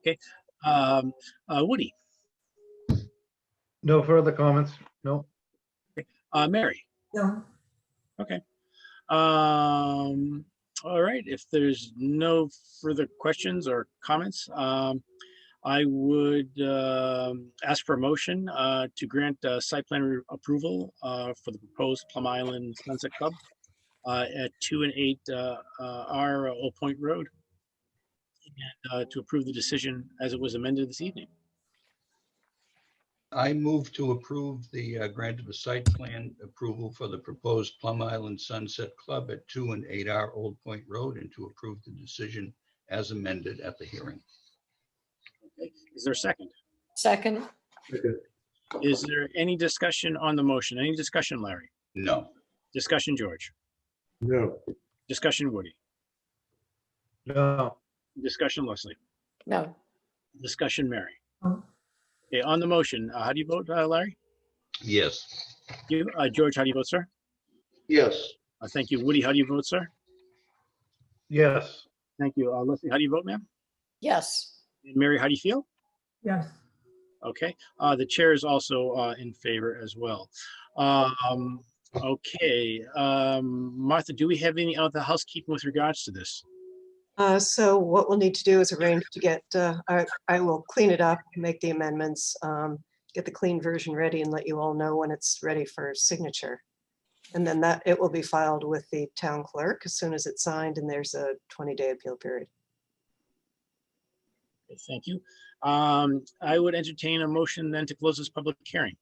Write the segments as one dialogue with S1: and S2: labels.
S1: Okay, um, uh, Woody,
S2: No further comments? No.
S1: uh, Mary.
S3: No,
S1: Um, all right, if there's no further questions or comments, um, I would, um ask for a motion, uh, to grant, uh, site plan re- approval, uh, for the proposed Plum Island Sunset Club, uh, at two and eight, uh, uh, R Old Point Road. And, uh, to approve the decision as it was amended this evening.
S4: I move to approve the uh, grant of a site plan approval for the proposed Plum Island Sunset Club at two and eight R Old Point Road and to approve the decision as amended at the hearing.
S1: Is there a second?
S3: second,
S1: Is there any discussion on the motion? Any discussion, Larry?
S4: No,
S1: Discussion, George?
S5: No,
S1: Discussion, Woody?
S2: No.
S1: Discussion, Leslie.
S3: no,
S1: Discussion, Mary.
S3: No.
S1: Okay, on the motion, uh, how do you vote, uh, Larry?
S4: yes.
S1: You, uh, George, how do you vote, sir?
S5: yes,
S1: Uh, Thank you. Woody, how do you vote, sir?
S2: Yes.
S1: Thank you. Uh, Leslie, how do you vote, ma'am?
S3: yes.
S1: And Mary, how do you feel?
S3: Yes.
S1: Okay, uh, the chair is also, uh, in favor as well. Um, okay, um, Martha, do we have any other housekeeping with regards to this?
S6: Uh, So what we'll need to do is arrange to get, uh, I I will clean it up, make the amendments, um, get the clean version ready and let you all know when it's ready for signature. And then that, it will be filed with the town clerk as soon as it's signed and there's a 20-day appeal period.
S1: Okay, Thank you. Um, I would entertain a motion then to close this public hearing.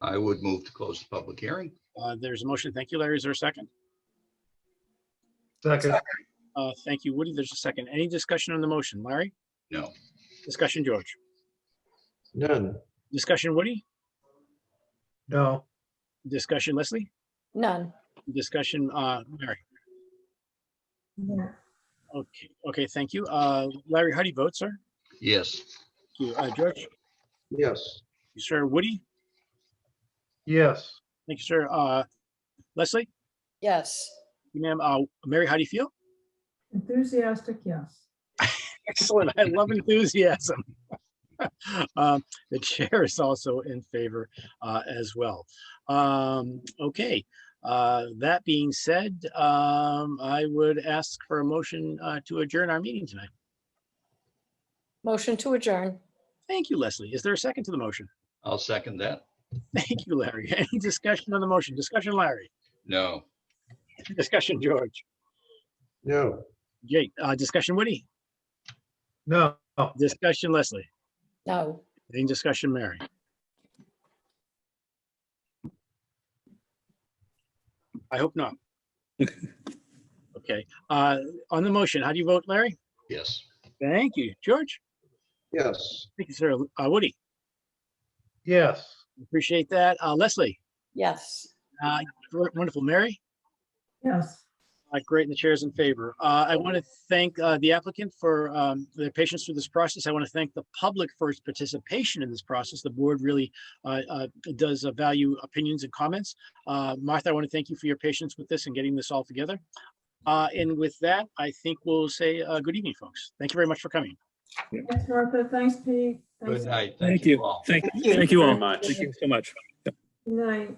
S4: I would move to close the public hearing.
S1: Uh, there's a motion. Thank you, Larry. Is there a second?
S2: Second.
S1: Uh, thank you, Woody. There's a second. Any discussion on the motion? Larry?
S4: No,
S1: Discussion, George.
S5: none,
S1: Discussion, Woody.
S2: No.
S1: Discussion, Leslie.
S3: None,
S1: Discussion, uh, Mary.
S3: no,
S1: Okay, okay, thank you. Uh, Larry, how do you vote, sir?
S4: yes.
S1: Thank you. Uh, George,
S5: yes,
S1: you, sir. Woody,
S2: Yes.
S1: thank you, sir. Uh, Leslie,
S3: yes.
S1: you, ma'am, uh, Mary, how do you feel?
S7: Enthusiastic, yes.
S1: Excellent. I love enthusiasm. Um, The chair is also in favor uh, as well. Um, Okay, uh, that being said, um, I would ask for a motion uh, to adjourn our meeting tonight.
S3: Motion to adjourn.
S1: Thank you, Leslie. Is there a second to the motion?
S4: I'll second that.
S1: Thank you, Larry. Any discussion on the motion? Discussion, Larry.
S4: No,
S1: Discussion, George.
S5: no.
S1: Jake, uh, discussion, Woody.
S2: No.
S1: Discussion, Leslie.
S3: No.
S1: Any discussion, Mary? I hope not. Okay, uh, on the motion, how do you vote, Larry?
S4: yes.
S1: Thank you. George?
S5: Yes.
S1: Thank you, sir. Uh, Woody,
S2: Yes.
S1: appreciate that. Uh, Leslie,
S3: Yes.
S1: uh, wonderful. Mary?
S7: Yes.
S1: Uh, Great, and the chair is in favor. Uh, I want to thank uh, the applicant for um, their patience through this process. I want to thank the public for its participation in this process. The board really uh, uh, does uh, value opinions and comments. Uh, Martha, I want to thank you for your patience with this and getting this all together. Uh, And with that, I think we'll say uh, good evening, folks. Thank you very much for coming.
S7: Thanks, Martha. Thanks, Pete. Thanks.
S4: Good night.
S8: Thank
S4: Thank
S8: you.
S4: you all.
S8: Thank,
S6: Thank you
S8: thank you
S6: very
S8: all.
S6: much.
S8: Thank you so much.
S7: Good night.